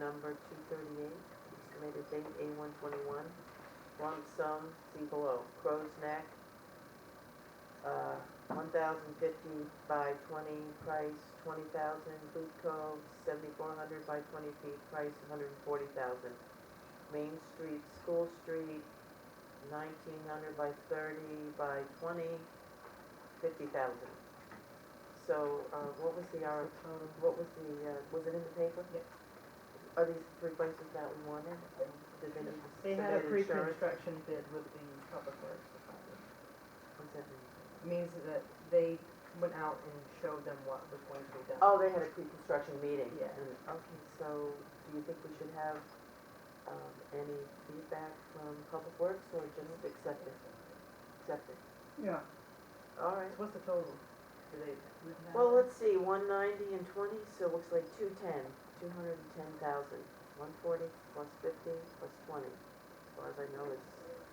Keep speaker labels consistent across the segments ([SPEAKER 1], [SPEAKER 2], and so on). [SPEAKER 1] number two thirty-eight, estimated date A one twenty-one, lump sum, see below, Crow's Neck, uh, one thousand fifty by twenty, price twenty thousand, Boot Cove, seventy-four hundred by twenty feet, price hundred and forty thousand. Main Street, School Street, nineteen hundred by thirty by twenty, fifty thousand. So, uh, what was the, our, what was the, uh, was it in the paper?
[SPEAKER 2] Yep.
[SPEAKER 1] Are these three places that we wanted? Did they
[SPEAKER 2] They had a
[SPEAKER 1] submit insurance?
[SPEAKER 2] pre-construction bid with the public works department.
[SPEAKER 1] What's that mean?
[SPEAKER 2] Means that they went out and showed them what was going to be done.
[SPEAKER 1] Oh, they had a pre-construction meeting?
[SPEAKER 2] Yeah.
[SPEAKER 1] And- Okay, so do you think we should have, um, any feedback from Public Works or just accept it? Accept it.
[SPEAKER 3] Yeah,
[SPEAKER 1] All right.
[SPEAKER 2] What's the total? Do they?
[SPEAKER 1] Well, let's see, one ninety and twenty, so it looks like two ten, two hundred and ten thousand. One forty plus fifty plus twenty, as far as I know, it's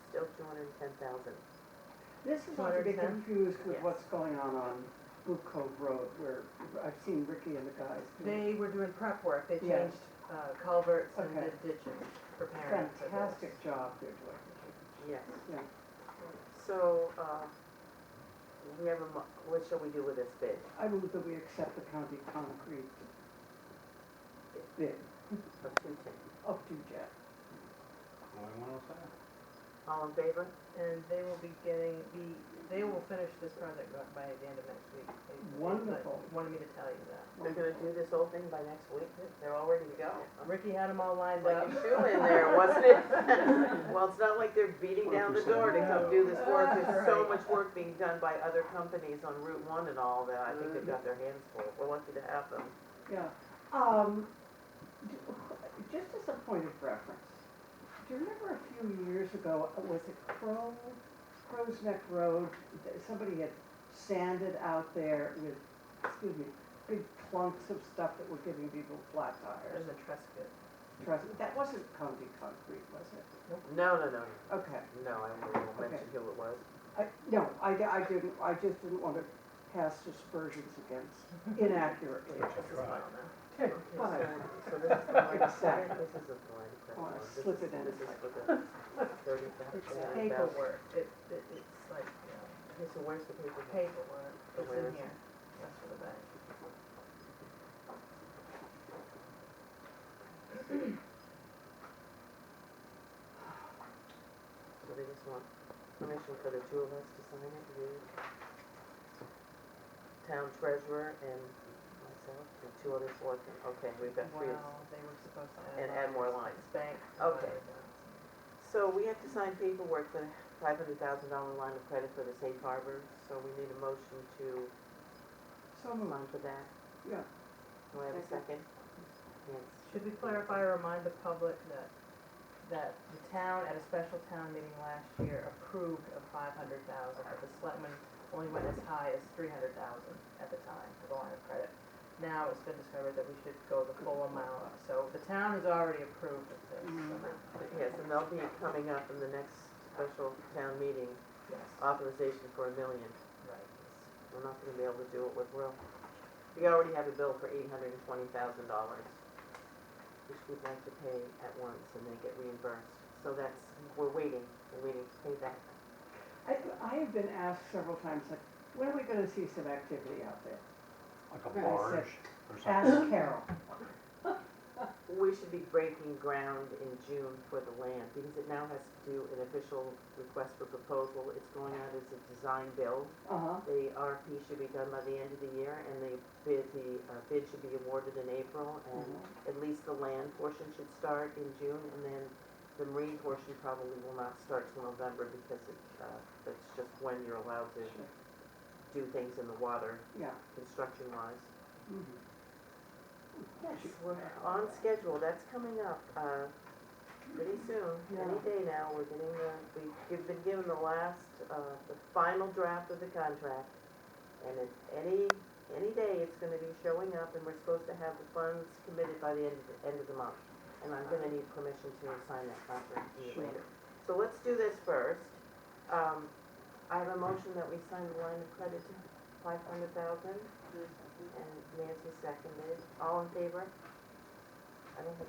[SPEAKER 1] still two hundred and ten thousand.
[SPEAKER 3] this is not to get
[SPEAKER 2] 210?
[SPEAKER 3] confused with
[SPEAKER 1] Yes.
[SPEAKER 3] what's going on on Blue Cove Road where I've seen Ricky and the guys do
[SPEAKER 2] They were doing prep work. They
[SPEAKER 3] Yeah.
[SPEAKER 2] changed uh, culverts and
[SPEAKER 3] Okay.
[SPEAKER 2] did ditching, preparing for this.
[SPEAKER 3] fantastic job they're doing.
[SPEAKER 1] Yes.
[SPEAKER 3] Yeah.
[SPEAKER 1] So, uh, we have a, mo- what shall we do with this bid?
[SPEAKER 3] I move that we accept the county concrete bid
[SPEAKER 1] Of two ten.
[SPEAKER 3] up to Jet.
[SPEAKER 1] All in favor?
[SPEAKER 2] And they will be getting, the. they will finish this project by- by the end of next week. They- they-
[SPEAKER 3] Wonderful.
[SPEAKER 2] Wanted me to tell you that.
[SPEAKER 1] They're gonna do this whole thing by next week, they're all ready to go.
[SPEAKER 2] Ricky had them all lined
[SPEAKER 1] Like
[SPEAKER 2] up.
[SPEAKER 1] a shoe in there, wasn't it? Well, it's not like they're beating down the door to come do this work, there's so much work being done by other companies on Route One and all that, I think they've got their hands full, we're lucky to have them.
[SPEAKER 3] Yeah, um, d- just as a point of reference, do you remember a few years ago, uh, was it Crow, Crow's Neck Road? that Somebody had sanded out there with, excuse me, big clunks of stuff that were giving people flat
[SPEAKER 2] There's
[SPEAKER 3] tires.
[SPEAKER 2] a Trescott.
[SPEAKER 3] Trust, that wasn't county concrete, was it?
[SPEAKER 1] No, no, no,
[SPEAKER 3] Okay,
[SPEAKER 1] no, I won't mention who it was.
[SPEAKER 3] I, no, I, d- I didn't, I just didn't want to cast aspersions against inaccurately.
[SPEAKER 2] This is
[SPEAKER 4] Right.
[SPEAKER 2] fine now.
[SPEAKER 3] But,
[SPEAKER 1] So this is the line of credit, this is the line of credit.
[SPEAKER 3] Oh, I
[SPEAKER 1] one. This
[SPEAKER 3] slipped
[SPEAKER 1] is-
[SPEAKER 3] it in.
[SPEAKER 1] This is for the thirty
[SPEAKER 2] It's
[SPEAKER 1] thousand.
[SPEAKER 2] paperwork. It, it, it's like, you know,
[SPEAKER 1] Okay, so where's the paperwork?
[SPEAKER 2] paperwork. It's
[SPEAKER 1] Where
[SPEAKER 2] in
[SPEAKER 1] is it?
[SPEAKER 2] here. That's for the bank.
[SPEAKER 1] So they just want permission for the two of us to sign it, the town treasurer and myself, and two other selectmen, okay, we've got
[SPEAKER 2] Wow,
[SPEAKER 1] three.
[SPEAKER 2] they were supposed to
[SPEAKER 1] And
[SPEAKER 2] add.
[SPEAKER 1] add more lines.
[SPEAKER 2] It's Bank.
[SPEAKER 1] Okay. So we have to sign paperwork for the five hundred thousand dollar line of credit for the safe harbor, so we need a motion to
[SPEAKER 3] So moved,
[SPEAKER 1] sign for that.
[SPEAKER 3] yeah.
[SPEAKER 1] Do I have a second? Yes.
[SPEAKER 2] Should we clarify or remind the public that, that the town at a special town meeting last year approved of five hundred thousand, but the selectmen only went as high as three hundred thousand at the time for the line of credit. Now it's been discovered that we should go the full amount, so the town has already approved of this amount,
[SPEAKER 1] Mm-hmm. Yes, and they'll be coming up in the next special town meeting,
[SPEAKER 2] yes,
[SPEAKER 1] authorization for a million.
[SPEAKER 2] right.
[SPEAKER 1] We're not gonna be able to do it with Will. We already have a bill for eight hundred and twenty thousand dollars, which we'd like to pay at once and then get reimbursed. So that's, we're waiting, we're waiting to pay that.
[SPEAKER 3] I, I have been asked several times, like, when are we gonna see some activity out there?
[SPEAKER 4] Like a
[SPEAKER 3] Yeah, I
[SPEAKER 4] barge or something.
[SPEAKER 3] Ask Carol.
[SPEAKER 1] We should be breaking ground in June for the land, because it now has to do an official request for proposal. It's going out as a design build.
[SPEAKER 3] Uh-huh,
[SPEAKER 1] The RFP should be done by the end of the year, and the bid, the uh, bid should be awarded in April,
[SPEAKER 3] Mm-hmm.
[SPEAKER 1] and at least the land portion should start in June, and then the marine portion probably will not start till November, because it, uh, that's just when you're allowed to
[SPEAKER 3] Sure.
[SPEAKER 1] do things in the water,
[SPEAKER 3] yeah.
[SPEAKER 1] construction wise.
[SPEAKER 3] mhm.
[SPEAKER 1] Yes, we're on schedule, that's coming up, uh, pretty soon, any
[SPEAKER 3] Yeah.
[SPEAKER 1] day now, we're getting the, we've been given the last, uh, the final draft of the contract. And it's any, any day it's gonna be showing up and we're supposed to have the funds committed by the end, of the end of the month. And I'm gonna need permission to sign that contract to you
[SPEAKER 3] Sure.
[SPEAKER 1] later. So let's do this first. Um, I have a motion that we sign the line of credit to five hundred thousand. And Nancy seconded. All in favor? I don't think